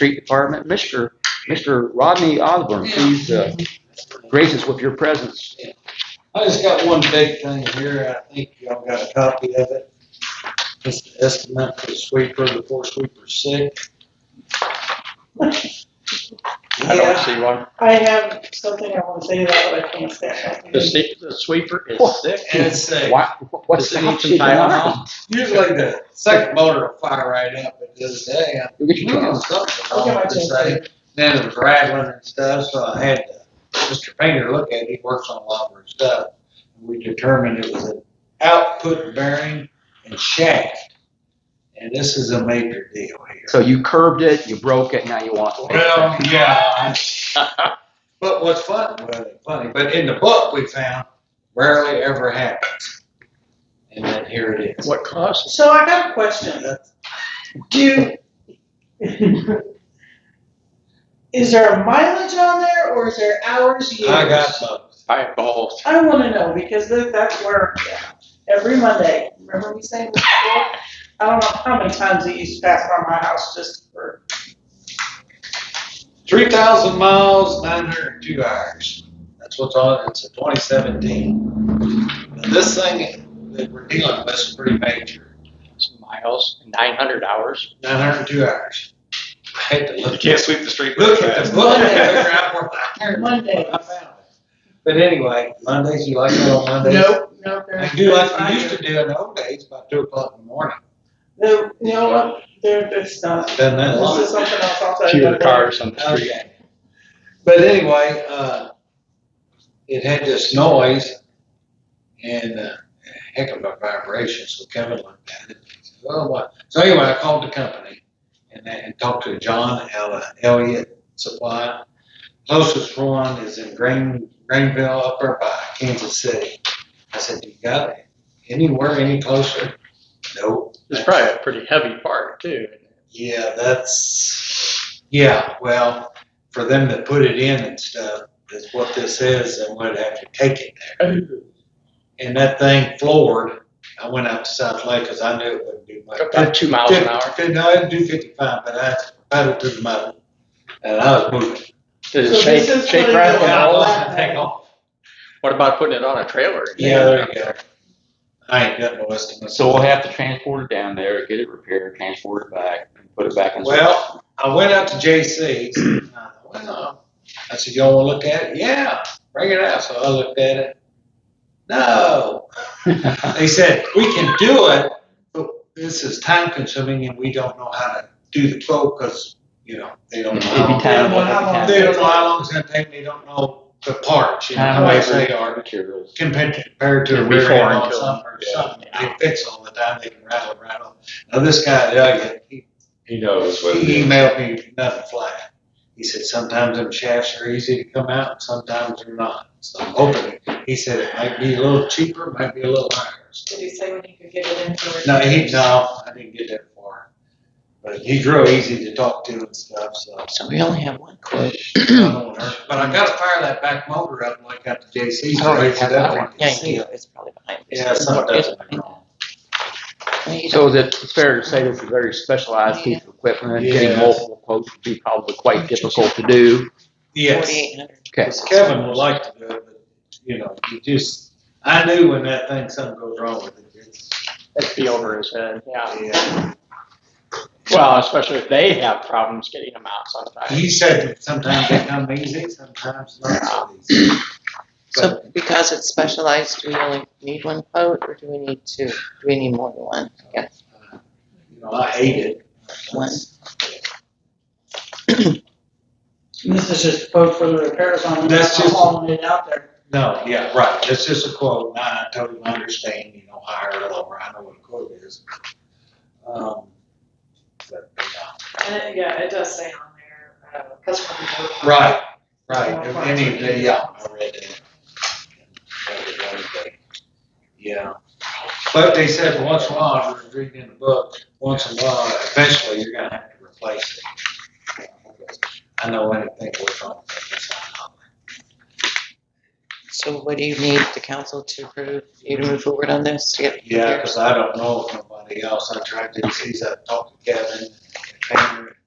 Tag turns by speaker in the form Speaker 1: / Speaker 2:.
Speaker 1: Street Department. Mr. Mr. Rodney Osborne, please uh, grace us with your presence.
Speaker 2: I just got one big thing here, I think y'all got a copy of it. It's the estimate for the sweeper, the four sweeper six.
Speaker 3: I don't see one.
Speaker 4: I have something I want to say about it, but I can't say it.
Speaker 3: The se- the sweeper
Speaker 1: Oh.
Speaker 3: is sick.
Speaker 2: And it's sick.
Speaker 1: Why, what's
Speaker 3: Does it need
Speaker 1: stopped
Speaker 3: some
Speaker 1: you tonight?
Speaker 3: Tylenol?
Speaker 2: Usually the second motor will fire right up, but the other day, I
Speaker 1: You'll get your
Speaker 2: knew
Speaker 1: Tylenol.
Speaker 2: something
Speaker 4: I'll
Speaker 2: wrong
Speaker 4: get my
Speaker 2: with this thing.
Speaker 4: change.
Speaker 2: Then it was rattling and stuff, so I had uh, Mr. Painter look at it, he works on a lot of our stuff. We determined it was an output bearing and shaft. And this is a major deal here.
Speaker 1: So you curbed it, you broke it, now you want. to fix it.
Speaker 2: Well, yeah. But what's fun, well, funny, but in the book we found rarely ever happens. And then here it is.
Speaker 3: What cost?
Speaker 4: So I got a question. Do, is there a mileage on there or is there hours used?
Speaker 2: I got both.
Speaker 3: I have both.
Speaker 4: I want to know because that- that's where, every Monday, remember we saying this before? I don't know how many times it used to pass by my house just for,
Speaker 2: Three thousand miles, nine hundred and two hours. That's what's on, it's a twenty seventeen. This thing that we're dealing with is pretty major,
Speaker 3: Some miles, 900 hours.
Speaker 2: nine hundred and two hours. I had to
Speaker 5: You
Speaker 2: look,
Speaker 5: can't sweep the street with
Speaker 2: look
Speaker 5: a
Speaker 2: at the
Speaker 5: cat.
Speaker 2: book and figure out where I can.
Speaker 4: Mondays.
Speaker 2: I found it. But anyway, Mondays, you like it on Mondays?
Speaker 4: nope, nope.
Speaker 2: I do like we used to do in the old days, about two o'clock in the morning.
Speaker 4: No, you know what? There, it's not.
Speaker 2: Done that
Speaker 4: This
Speaker 2: long.
Speaker 4: is something else I'll tell you
Speaker 3: Fewer
Speaker 4: about later.
Speaker 3: cars on the street.
Speaker 2: Okay. But anyway, uh, it had this noise and uh, heck of a vibration. So Kevin looked at it. And said, oh, what? So anyway, I called the company and, and talked to John Ella, Elliott Supply. Closest one is in Grain, Greenville, up there by Kansas City. I said, "You got it? Anywhere any closer?" Nope.
Speaker 3: It's probably a pretty heavy part too.
Speaker 2: Yeah, that's, yeah, well, for them to put it in and stuff, is what this is, and would have to take it there. And that thing floored, I went out to South Lake, cause I knew it wouldn't do much.
Speaker 3: About two miles an hour.
Speaker 2: Fifty- No, it'd do fifty-five, but I paddled to the mud, and I was moving.
Speaker 3: Does
Speaker 4: So
Speaker 3: it shake,
Speaker 4: this is
Speaker 3: shake
Speaker 4: what it
Speaker 3: rattle
Speaker 4: is.
Speaker 3: and
Speaker 2: I
Speaker 3: all?
Speaker 4: Yeah.
Speaker 2: wasn't taking off.
Speaker 3: What about putting it on a trailer?
Speaker 2: Yeah, there you go. I ain't got no estimate.
Speaker 1: So we'll have to transport it down there, get it repaired, transport it back, and put it back in.
Speaker 2: Well, I went out to JC's. and I thought, Well, I said, y'all want to look at it? Yeah, bring it out. So I looked at it. No, they said we can do it, but this is time consuming and we don't know how to do the quote because you know they don't know.
Speaker 1: It'd be
Speaker 2: How
Speaker 1: time-
Speaker 2: long, they don't know how long it's gonna take. They don't know the parts. You know
Speaker 1: Time
Speaker 2: how much
Speaker 1: labor.
Speaker 2: they are
Speaker 1: materials.
Speaker 2: compared to, compared to a
Speaker 3: It'd be
Speaker 2: rear
Speaker 3: foreign
Speaker 2: end on
Speaker 3: to 'em.
Speaker 2: something or something. They fix all the time. They can rattle around. Now this guy, Elliot, he
Speaker 5: He knows what it
Speaker 2: he
Speaker 5: is.
Speaker 2: emailed me nothing flat. He said, sometimes them shafts are easy to come out, and sometimes they're not. So I'm hoping, he said it might be a little cheaper, might be a little higher. So-
Speaker 4: Did he say when he could get it in for? it?
Speaker 2: No, he, no, I didn't get that far. But he's real easy to talk to and stuff, so.
Speaker 3: So we only have one quote.
Speaker 2: I don't know. But I gotta fire that back motor up like at the JC's. raise it up and see it.
Speaker 6: It's probably behind.
Speaker 2: Yeah, something doesn't. wrong.
Speaker 1: So is it fair to say this is a very specialized piece of equipment? Getting
Speaker 2: Yes.
Speaker 1: multiple quotes would be probably quite difficult to do.
Speaker 2: Yes.
Speaker 6: Forty-eight hundred.
Speaker 1: Okay.
Speaker 2: Because Kevin would like to do it, but, you know, you just, I knew when that thing, something goes wrong with it. It's-
Speaker 3: That'd be over his head, yeah.
Speaker 2: Yeah.
Speaker 3: Well, especially if they have problems getting them out sometimes.
Speaker 2: He said that sometimes they come easy, sometimes not so easy.
Speaker 6: So because it's specialized, do we only need one quote or do we need two? Do we need more than one? Yeah,
Speaker 2: But, uh, You know, I hate it.
Speaker 6: one.
Speaker 4: This is just a quote for the repairs on. it.
Speaker 2: That's just-
Speaker 4: I'm hauling it out there.
Speaker 2: No, yeah, right, that's just a quote, and I totally understand, you know, higher or lower, I know what a quote is. Um, but, yeah.
Speaker 7: And it, yeah, it does say on there, uh, customer note.
Speaker 2: Right, right, any day, yeah, I read it. Yeah, but they said once in a while, I was reading in the book, once in a while, eventually you're gonna have to replace it. I know anything goes wrong, it's not.
Speaker 6: So what do you need the council to approve you to move forward on this to get?
Speaker 2: Yeah, because I don't know of nobody else. I tried to see, I talked to Kevin, Tanner,